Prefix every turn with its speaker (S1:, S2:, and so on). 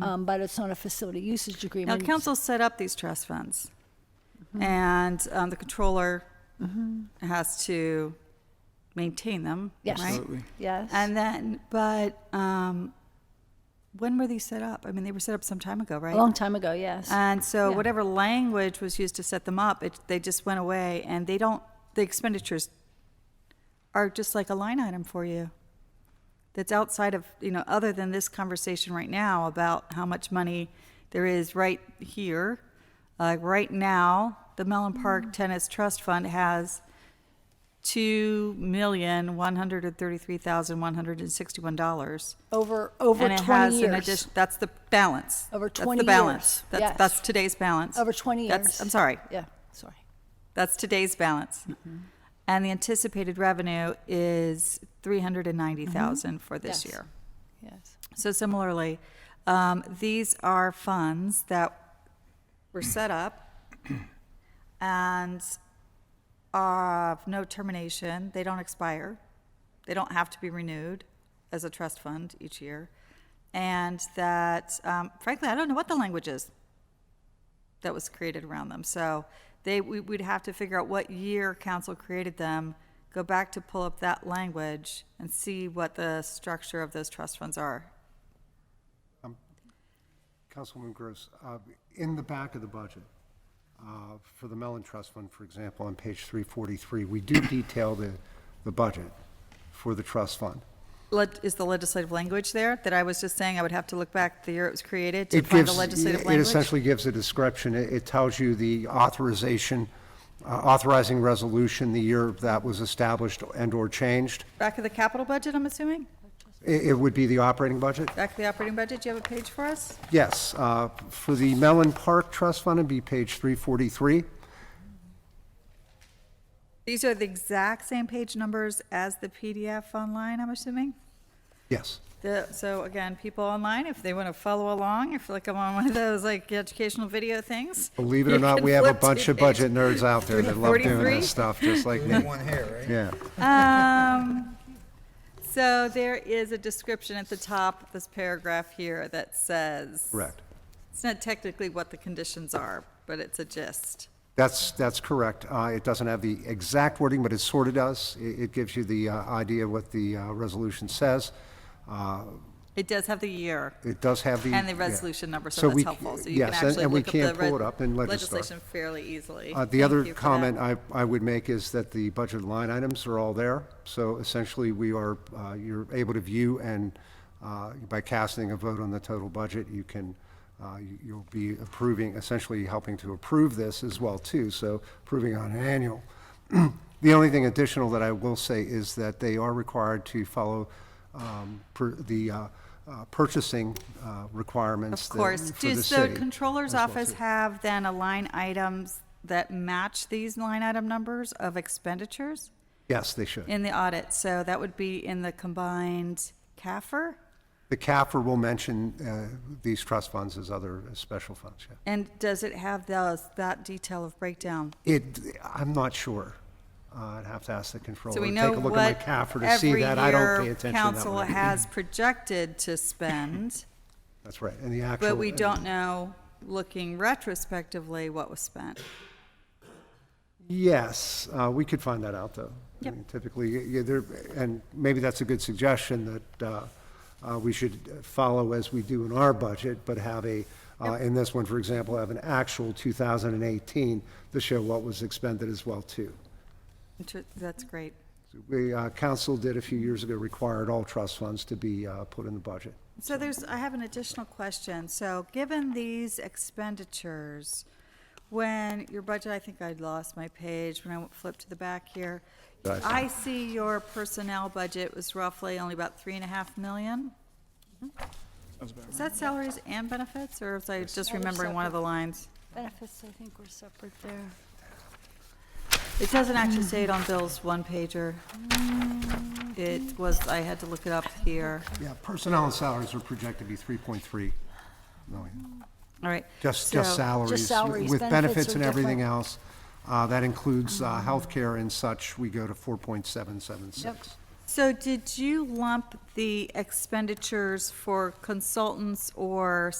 S1: um, but it's not a facility usage
S2: Mm-hmm. Now,
S1: agreement.
S2: council set up these trust funds,
S1: Mm-hmm.
S2: and um, the controller has to maintain them,
S1: Yes.
S2: right?
S3: Absolutely.
S1: Yes.
S2: And then, but um, when were these set up? I mean, they were set up some time ago, right?
S1: a long time ago, yes.
S2: And so
S1: Yeah.
S2: whatever language was used to set them up, it, they just went away and they don't, the expenditures are just like a line item for you. That's outside of, you know, other than this conversation right now about how much money there is right here. Uh, right now, the Mellon
S1: Mm.
S2: Park Tennis Trust Fund has two million, one hundred and thirty-three thousand, one hundred and sixty-one dollars.
S1: over over
S2: And it
S1: 20
S2: has
S1: years.
S2: an addition, that's the balance.
S1: Over
S2: That's
S1: 20
S2: the balance.
S1: years.
S2: That's,
S1: Yes.
S2: that's today's balance.
S1: over 20 years.
S2: That's, I'm sorry,
S1: Yeah, sorry.
S2: that's today's balance.
S1: Mm-hmm.
S2: And the anticipated revenue is three hundred and ninety thousand for this
S1: Mm-hmm. Yes.
S2: year.
S1: Yes.
S2: So similarly, um, these are funds that were set up and are of no termination. They don't expire. They don't have to be renewed as a trust fund each year. And that, um, frankly, I don't know what the language is that was created around them. So they, we would have to figure out what year council created them, go back to pull up that language and see what the structure of those trust funds are.
S4: Councilwoman Gross, uh, in the back of the budget, uh, for the Mellon Trust Fund, for example, on page 343, we do detail the, the budget for the trust fund.
S2: Leg- Is the legislative language there that I was just saying I would have to look back the year it was created to find the legislative
S4: It
S2: language?
S4: essentially gives a description. It it tells you the authorization, uh, authorizing resolution, the year that was established and/or changed.
S2: Back of the capital budget, I'm assuming?
S4: It it would be the operating budget?
S2: Back of the operating budget, do you have a page for us?
S4: Yes, uh, for the Mellon Park Trust Fund, it'd be page 343.
S2: These are the exact same page numbers as the PDF online, I'm assuming?
S4: Yes.
S2: The, so again, people online, if they want to follow along, if like I'm on one of those like educational video things.
S4: Believe it or
S2: you
S4: not,
S2: can
S4: we have a
S2: flip to
S4: bunch of
S2: page
S4: budget nerds out there that love doing
S2: 43.
S4: this stuff, just like me. Yeah.
S2: Um, so there is a description at the top of this paragraph here that says.
S4: Correct.
S2: It's not technically what the conditions are, but it's a gist.
S4: That's, that's correct. Uh, It doesn't have the exact wording, but it sort of does. It it gives you the uh, idea of what the uh, resolution says. Uh,
S2: It does have the year
S4: It does have the.
S2: and the
S4: yeah.
S2: resolution number, so that's
S4: we-
S2: helpful. So you can
S4: yes, and-
S2: actually
S4: and we
S2: look up the
S4: can pull
S2: reg-
S4: it up in Legistar.
S2: legislation fairly easily.
S4: Uh, The
S2: Thank
S4: other
S2: you for that.
S4: comment I, I would make is that the budget line items are all there. So essentially, we are, uh, you're able to view and uh, by casting a vote on the total budget, you can, uh, you- you'll be approving, essentially helping to approve this as well too. So approving on an annual. The only thing additional that I will say is that they are required to follow um, per- the uh, uh, purchasing uh, requirements
S2: Of
S4: that-
S2: course.
S4: for the
S2: Does the
S4: city.
S2: controller's
S4: as well,
S2: office
S4: too.
S2: have then a line items that match these line item numbers of expenditures
S4: Yes, they should.
S2: in the audit? So that would be in the combined CAFR?
S4: The CAFR will mention uh, these trust funds as other special funds, yeah.
S2: And does it have those, that detail of breakdown?
S4: It, I'm not sure. Uh, I'd have to ask the controller.
S2: So we
S4: Take
S2: know
S4: a look at
S2: what
S4: my CAFR to see
S2: every
S4: that. I don't pay
S2: year
S4: attention to that
S2: council
S4: one.
S2: has projected to spend,
S4: That's right, and the actual.
S2: but we don't know, looking retrospectively, what was spent.
S4: Yes, uh, we could find that out, though. I
S2: Yep.
S4: mean, Typically, y- yeah, there, and maybe that's a good suggestion that uh, uh, we should follow as we do in our budget, but have a, uh, in this one, for example, have an actual 2018 to show what was expended as well, too.
S2: Inter- That's great.
S4: We, uh, council did a few years ago, required all trust funds to be uh, put in the budget.
S2: So there's, I have an additional question. So given these expenditures, when your budget, I think I lost my page when I flipped to the back here.
S4: Right.
S2: I see your personnel budget was roughly only about three and a half million. Is that salaries and benefits, or was I just remembering one of the lines?
S1: Benefits, I think, were separate there.
S2: It doesn't actually say it on Bill's one pager. It was, I had to look it up here.
S4: Yeah, personnel and salaries are projected to be 3.3 million.
S2: All right.
S4: Just,
S2: so-
S4: just salaries.
S1: Just salaries,
S4: With
S1: benefits
S4: benefits
S1: are
S4: and everything
S1: different. Mm-hmm.
S4: else. Uh, That includes uh, healthcare and such, we go to 4.776.
S2: So did you lump the expenditures for consultants or